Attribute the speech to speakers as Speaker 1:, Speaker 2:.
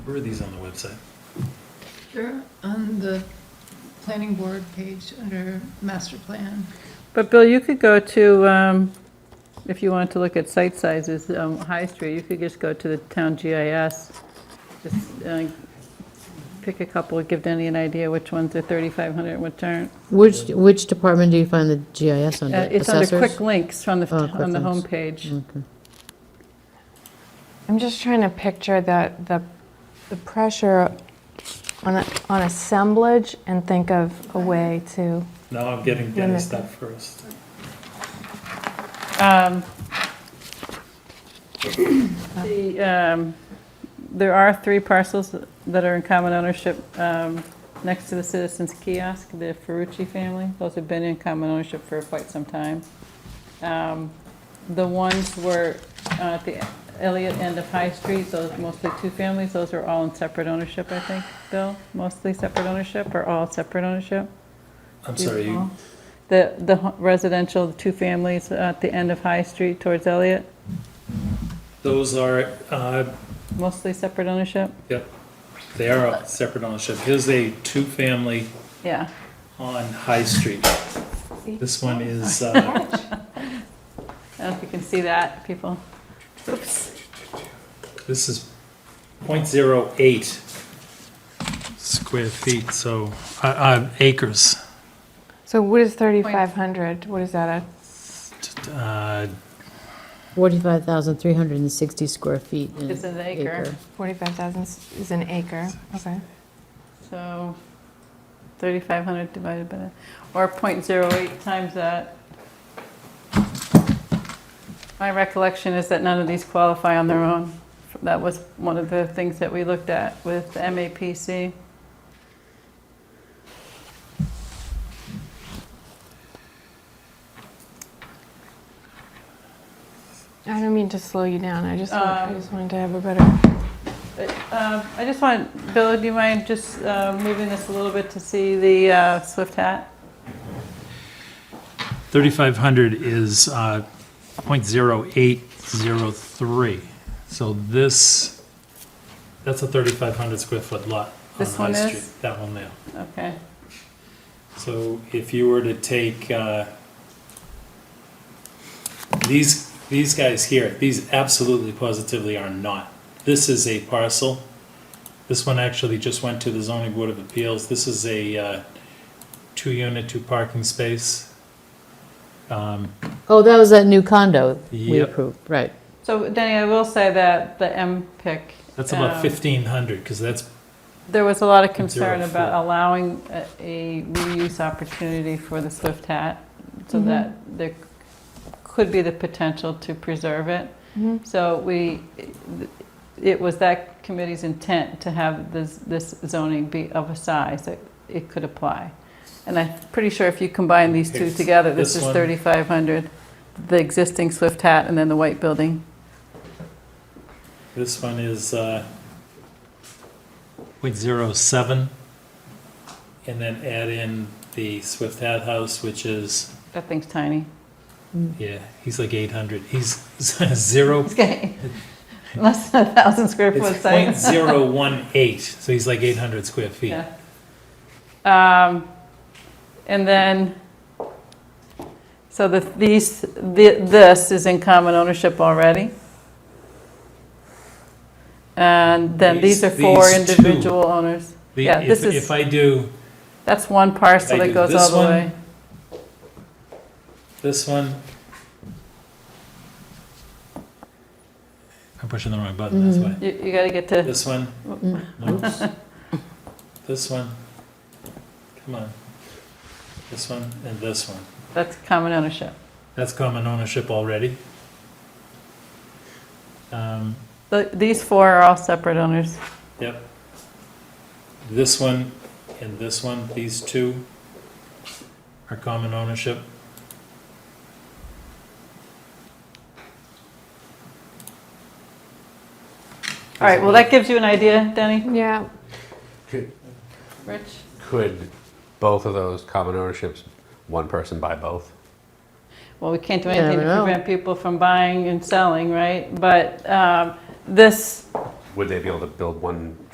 Speaker 1: Where are these on the website?
Speaker 2: They're on the planning board page under master plan.
Speaker 3: But Bill, you could go to, um, if you wanted to look at site sizes, um, High Street, you could just go to the town GIS. Just uh, pick a couple, give Denny an idea which ones are 3,500 and which aren't.
Speaker 4: Which, which department do you find the GIS under?
Speaker 3: Uh, It's under
Speaker 4: Assessors?
Speaker 3: quick links on the,
Speaker 4: Oh, quick
Speaker 3: on the
Speaker 4: links.
Speaker 3: homepage.
Speaker 5: I'm just trying to picture the, the, the pressure on, a- on assemblage and think of a way to,
Speaker 1: Now I'm getting Denny's
Speaker 5: Limit.
Speaker 1: stuff first.
Speaker 3: Um, the, um, There are three parcels that are in common ownership um, next to the Citizens Kiosk, the Ferrucci family. Those have been in common ownership for quite some time. Um, The ones were uh, at the Elliott end of High Street, those mostly two families, those are all in separate ownership, I think, Bill? Mostly separate ownership or all separate ownership?
Speaker 1: I'm sorry, you,
Speaker 3: The, the hu- residential, the two families at the end of High Street towards Elliott,
Speaker 1: those are, uh,
Speaker 3: mostly separate ownership?
Speaker 1: yep, they are a separate ownership. Here's a two-family
Speaker 3: Yeah.
Speaker 1: on High Street. This one is, uh,
Speaker 3: I don't know if you can see that, people. Oops.
Speaker 1: this is point zero eight square feet, so, uh, uh, acres.
Speaker 5: so what is 3,500? What is that,
Speaker 1: Uh,
Speaker 4: 45,360 square feet in
Speaker 1: Mm.
Speaker 3: It's an acre.
Speaker 5: a 45,000 is an acre? Okay.
Speaker 3: So 3,500 divided by, that, or .08 times that. My recollection is that none of these qualify on their own. That was one of the things that we looked at with the MAPC.
Speaker 5: I don't mean to slow you down, I just, want- I
Speaker 3: Um,
Speaker 5: just wanted to have a better,
Speaker 3: Um, I just want, Bill, do you mind just uh, moving this a little bit to see the uh, Swift hat?
Speaker 1: thirty-five hundred is, uh, point zero eight zero three. So this, that's a thirty-five hundred square foot lot on
Speaker 3: This
Speaker 1: High
Speaker 3: one is?
Speaker 1: Street. That one there.
Speaker 3: Okay.
Speaker 1: So if you were to take, uh, these, these guys here, these absolutely positively are not. This is a parcel. This one actually just went to the zoning board of appeals. This is a, uh, two-unit, two-parking space. Um,
Speaker 4: Oh, that was that new condo we
Speaker 1: Yep.
Speaker 4: approved, right.
Speaker 3: So Denny, I will say that the M pick.
Speaker 1: That's about
Speaker 3: um,
Speaker 1: fifteen hundred, because that's,
Speaker 3: There was a lot of
Speaker 1: Zero
Speaker 3: concern about
Speaker 1: four.
Speaker 3: allowing a- a reuse opportunity for the Swift hat so that there could be the potential to preserve it.
Speaker 5: Mhm.
Speaker 3: So we, it was that committee's intent to have this, this zoning be of a size that it could apply. And I'm pretty sure if you combine these two
Speaker 1: It's
Speaker 3: together, this
Speaker 1: this
Speaker 3: is
Speaker 1: one.
Speaker 3: 3,500, the existing Swift hat and then the white building.
Speaker 1: this one is, uh, point zero seven. And then add in the Swift Hat House, which is
Speaker 3: That thing's tiny.
Speaker 1: Yeah, he's like 800. He's zero.
Speaker 3: It's getting less than a 1,000 square foot
Speaker 1: It's
Speaker 3: size.
Speaker 1: point zero one eight, so he's like 800 square feet.
Speaker 3: Yeah. Um, And then, so the, these, thi- this is in common ownership already. And then these
Speaker 1: These-
Speaker 3: are four
Speaker 1: these two.
Speaker 3: individual owners.
Speaker 1: The-
Speaker 3: Yeah,
Speaker 1: if,
Speaker 3: this is-
Speaker 1: if I do
Speaker 3: That's one parcel
Speaker 1: I
Speaker 3: that
Speaker 1: do
Speaker 3: goes
Speaker 1: this
Speaker 3: all the
Speaker 1: one.
Speaker 3: way.
Speaker 1: this one, I'm pushing the wrong button. That's why.
Speaker 3: You, you gotta get to,
Speaker 1: This one.
Speaker 4: Mm.
Speaker 1: No. this one. Come on. This one and this one.
Speaker 3: that's common ownership.
Speaker 1: That's common ownership already. Um,
Speaker 3: The- These four are all separate owners.
Speaker 1: Yep. This one and this one, these two are common ownership.
Speaker 3: All right, well, that gives you an idea, Denny,
Speaker 5: yeah,
Speaker 6: Could,
Speaker 3: Rich?
Speaker 6: could both of those common ownerships, one person buy both?
Speaker 3: Well, we can't do
Speaker 4: You never
Speaker 3: anything to
Speaker 4: know.
Speaker 3: prevent people from buying and selling, right? But um, this,
Speaker 6: Would they be able to build one